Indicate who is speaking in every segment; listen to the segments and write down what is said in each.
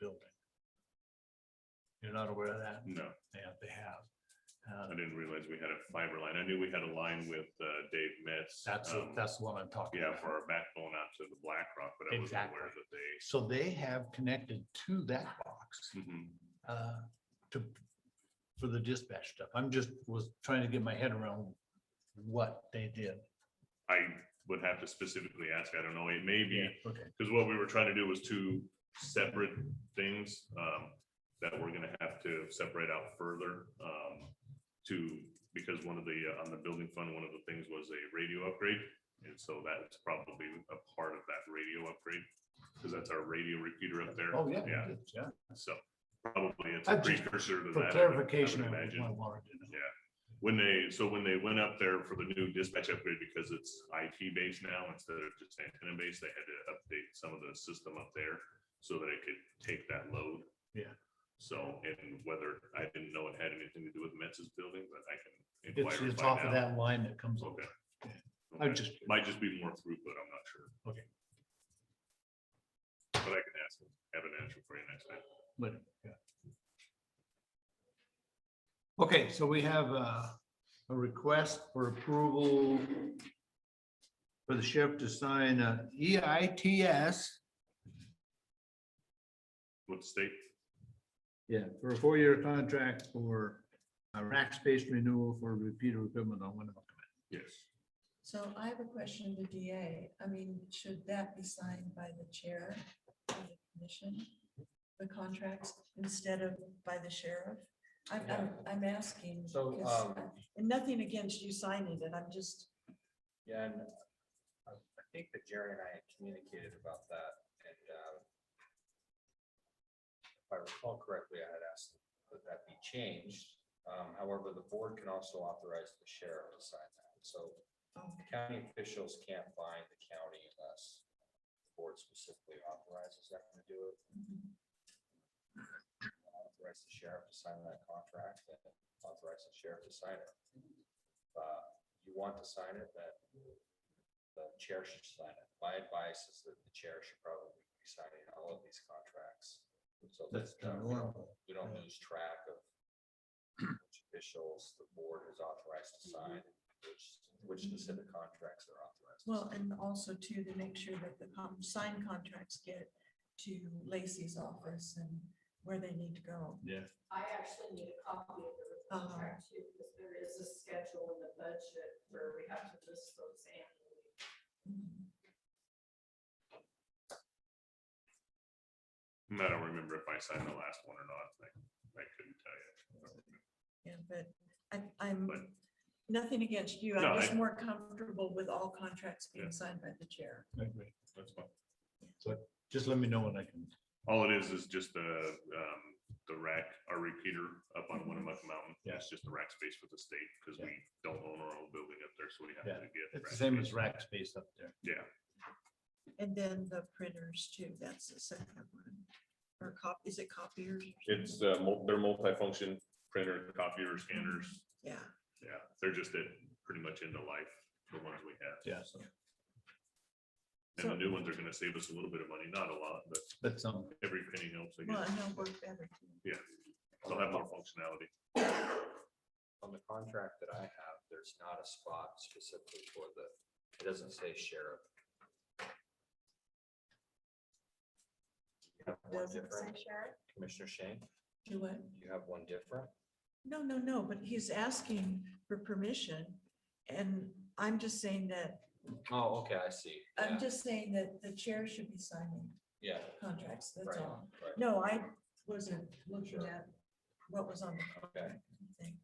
Speaker 1: building. You're not aware of that?
Speaker 2: No,
Speaker 1: Yeah, they have. Uh,
Speaker 2: I didn't realize we had a fiber line. I knew we had a line with uh, Dave Metz.
Speaker 1: That's, the-
Speaker 2: um,
Speaker 1: that's the one I'm talking
Speaker 2: Yeah,
Speaker 1: about.
Speaker 2: for our backbone out to the Black Rock, but I wasn't
Speaker 1: Exactly.
Speaker 2: aware that they.
Speaker 1: So they have connected to that box
Speaker 2: Mhm.
Speaker 1: uh, to, for the dispatch stuff. I'm just, was trying to get my head around what they did.
Speaker 2: I would have to specifically ask. I don't know. It may be,
Speaker 1: Okay,
Speaker 2: because what we were trying to do was two separate things um, that we're gonna have to separate out further um, to, because one of the, uh, on the building fund, one of the things was a radio upgrade. And so that's probably a part of that radio upgrade, because that's our radio repeater up there.
Speaker 1: oh, yeah. it
Speaker 2: Yeah,
Speaker 1: is, Yeah.
Speaker 2: so probably it's a
Speaker 1: I just-
Speaker 2: precursor to that. I
Speaker 1: For
Speaker 2: would- I would
Speaker 1: clarification, I
Speaker 2: imagine.
Speaker 1: wanted to know.
Speaker 2: When they, so when they went up there for the new dispatch upgrade, because it's IT based now instead of just antenna based, they had to update some of the system up there so that it could take that load.
Speaker 1: Yeah.
Speaker 2: So, and whether, I didn't know it had anything to do with Metz's building, but I can
Speaker 1: It's,
Speaker 2: inquire. and
Speaker 1: it's
Speaker 2: find
Speaker 1: off of
Speaker 2: out.
Speaker 1: that line that comes over.
Speaker 2: Okay.
Speaker 1: I
Speaker 2: Okay.
Speaker 1: just,
Speaker 2: Might just be more throughput, I'm not sure.
Speaker 1: Okay.
Speaker 2: But I can ask, them, have an answer for you next time.
Speaker 1: but, yeah. Okay, so we have a, a request for approval for the sheriff to sign a E EITS
Speaker 2: What state?
Speaker 1: Yeah, for a four-year contract for a rack space renewal for repeater equipment on Winnebago.
Speaker 2: Yes.
Speaker 3: So I have a question to DA. I mean, should that be signed by the chair of the commission? The contracts instead of by the sheriff? I'm, I'm, I'm asking.
Speaker 4: So,
Speaker 3: because
Speaker 4: um,
Speaker 3: I- And nothing against you signing it. I'm just,
Speaker 4: Yeah, and I I think that Jerry and I had communicated about that and um, if I recall correctly, I had asked that that be changed. Um, However, the board can also authorize the sheriff to sign that. So
Speaker 3: oh,
Speaker 4: county officials can't bind the county unless the board specifically authorizes them to do it. Authorize the sheriff to sign that contract and authorize the sheriff to sign it. Uh, You want to sign it, then the chair should sign it. My advice is that the chair should probably be signing all of these contracts. So
Speaker 1: That's
Speaker 4: that, uh,
Speaker 1: the
Speaker 4: we don't-
Speaker 1: normal.
Speaker 4: We don't lose track of which officials the board is authorized to sign, which, which specific contracts are authorized.
Speaker 3: Mm-hmm.
Speaker 4: to
Speaker 3: well,
Speaker 4: sign.
Speaker 3: and also too, to make sure that the con- signed contracts get to Lacey's office and where they need to go.
Speaker 5: I actually need a copy of the
Speaker 3: Uh-huh.
Speaker 5: contract too, because there is a schedule in the budget where we have to list those annually.
Speaker 2: I don't remember if I signed the last one or not. I, I couldn't tell you.
Speaker 3: Yeah, but I, I'm,
Speaker 2: But-
Speaker 3: nothing against you.
Speaker 2: No,
Speaker 3: I'm
Speaker 2: I-
Speaker 3: just more comfortable with all contracts
Speaker 2: Yeah.
Speaker 3: being signed by the chair.
Speaker 2: That's fine.
Speaker 1: Just let me know when I can.
Speaker 2: All it is, is just the, um, the rack, our repeater up on Winnemucca Mountain.
Speaker 1: Mm-hmm. Yeah.
Speaker 2: It's just the rack space for the state, because we don't own our own building up there, so we have
Speaker 1: Yeah.
Speaker 2: to get.
Speaker 1: It's
Speaker 2: rack
Speaker 1: the same
Speaker 2: space.
Speaker 1: as rack space up there.
Speaker 2: Yeah,
Speaker 3: And then the printers too, that's the second one. Or cop, is it copiers?
Speaker 2: it's, uh, mul- they're multi-function printer, copier, scanners,
Speaker 3: Yeah,
Speaker 1: Mm-hmm.
Speaker 2: yeah, they're just at, pretty much end of life, the ones we have.
Speaker 1: Yeah.
Speaker 2: so. And the new ones are gonna save us a little bit of money, not a lot, but
Speaker 1: That's um,
Speaker 2: every penny helps, I
Speaker 3: well,
Speaker 2: guess,
Speaker 3: and they'll work better. too.
Speaker 2: yeah, they'll have more functionality.
Speaker 4: On the contract that I have, there's not a spot specifically for the, it doesn't say sheriff. You have one
Speaker 3: Doesn't
Speaker 4: different,
Speaker 5: Sharon?
Speaker 4: Commissioner Shane,
Speaker 3: Do what?
Speaker 4: you have one different?
Speaker 3: No, no, no, but he's asking for permission. And I'm just saying that,
Speaker 4: Oh, okay, I see.
Speaker 3: I'm
Speaker 4: Yeah,
Speaker 3: just saying that the chair should be signing
Speaker 4: Yeah,
Speaker 3: contracts, that's
Speaker 4: right,
Speaker 3: all.
Speaker 4: right.
Speaker 3: No, I wasn't looking
Speaker 4: Sure.
Speaker 3: at what was on the
Speaker 4: Okay.
Speaker 3: contract. thing.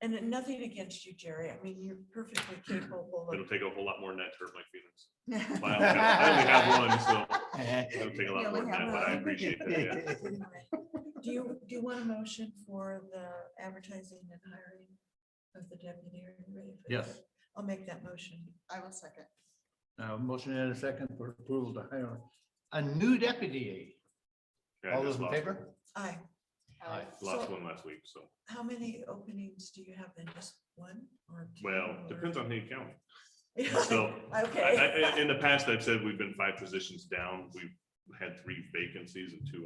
Speaker 3: And then nothing against you, Jerry. I mean, you're perfectly capable
Speaker 2: It'll
Speaker 3: of.
Speaker 2: take a whole lot more than that to hurt my feelings.
Speaker 3: You
Speaker 2: I only have- I only have one, so it'll take a lot more
Speaker 3: only
Speaker 2: than
Speaker 3: have
Speaker 2: that, but I
Speaker 3: one.
Speaker 2: appreciate that, yeah.
Speaker 3: Do you, do you want a motion for the advertising and hiring of the deputy? Are you ready for
Speaker 1: Yes.
Speaker 3: that? I'll make that motion. I will second.
Speaker 1: Uh, motion and a second for approval to hire a new deputy.
Speaker 2: Yeah, I
Speaker 1: All
Speaker 2: just
Speaker 1: those in
Speaker 2: lost-
Speaker 1: favor?
Speaker 3: Aye.
Speaker 1: Aye.
Speaker 2: Lost
Speaker 3: So-
Speaker 2: one last week, so,
Speaker 3: How many openings do you have then? Just one or? two
Speaker 2: well,
Speaker 3: or-
Speaker 2: depends on who you count.
Speaker 3: Yeah,
Speaker 2: so, I- I-
Speaker 3: Okay.
Speaker 2: in the past, I've said we've been five positions down. We've had three vacancies and two